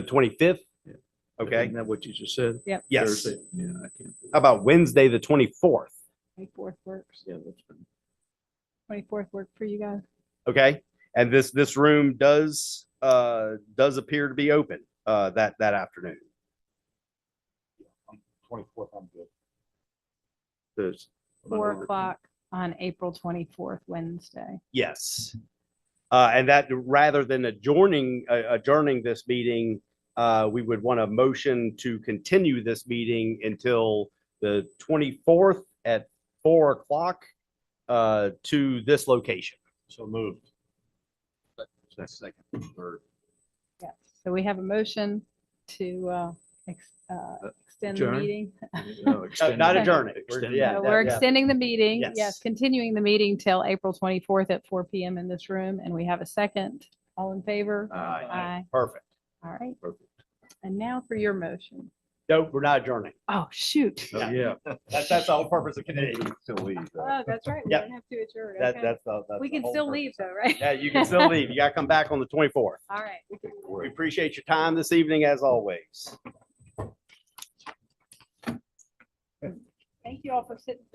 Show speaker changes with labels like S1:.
S1: The twenty-fifth?
S2: Yeah.
S1: Okay,
S2: Isn't that what you just said?
S3: Yep.
S1: yes.
S2: Thursday? Yeah, I can't. do
S1: How about Wednesday, the twenty-fourth?
S3: Twenty-fourth works.
S2: that. Yeah, that's fine.
S3: Twenty-fourth work for you guys.
S1: Okay, and this, this room does, uh, does appear to be open, uh, that, that afternoon.
S4: Twenty-fourth, I'm good.
S2: There's-
S3: Four o'clock on April twenty-fourth, Wednesday.
S1: Yes. Uh, and that, rather than adjourning, uh, adjourning this meeting, uh, we would want a motion to continue this meeting until the twenty-fourth at four o'clock, uh, to this location.
S2: So moved. Second, third.
S3: Yes. So we have a motion to, uh, ex- uh, extend the
S2: adjourn?
S3: meeting.
S2: No,
S1: Uh,
S2: extend
S1: Not
S2: it.
S1: adjourning. We're-
S2: Extend it.
S1: yeah,
S3: Uh,
S1: yeah,
S3: We're
S1: yeah.
S3: extending the meeting,
S1: Yes.
S3: yes, continuing the meeting till April twenty-fourth at four PM in this room, and we have a second. All in favor?
S2: Aye.
S3: Aye.
S1: Perfect.
S3: All right,
S2: Perfect.
S3: and now for your motion.
S1: No, we're not adjourning.
S3: Oh, shoot.
S2: Oh, Yeah.
S1: That's, that's the whole purpose of committee.
S2: Still leave.
S3: Oh, that's right. We
S1: Yeah.
S3: don't have to adjourn.
S1: That,
S3: okay.
S1: that's the. that's
S3: We
S1: the
S3: can
S1: whole
S3: still
S1: purpose.
S3: leave though, right?
S1: Yeah, you can still leave. You gotta come back on the twenty-fourth.
S3: All right.
S1: We appreciate your time this evening as always.
S3: Thank you all for sitting.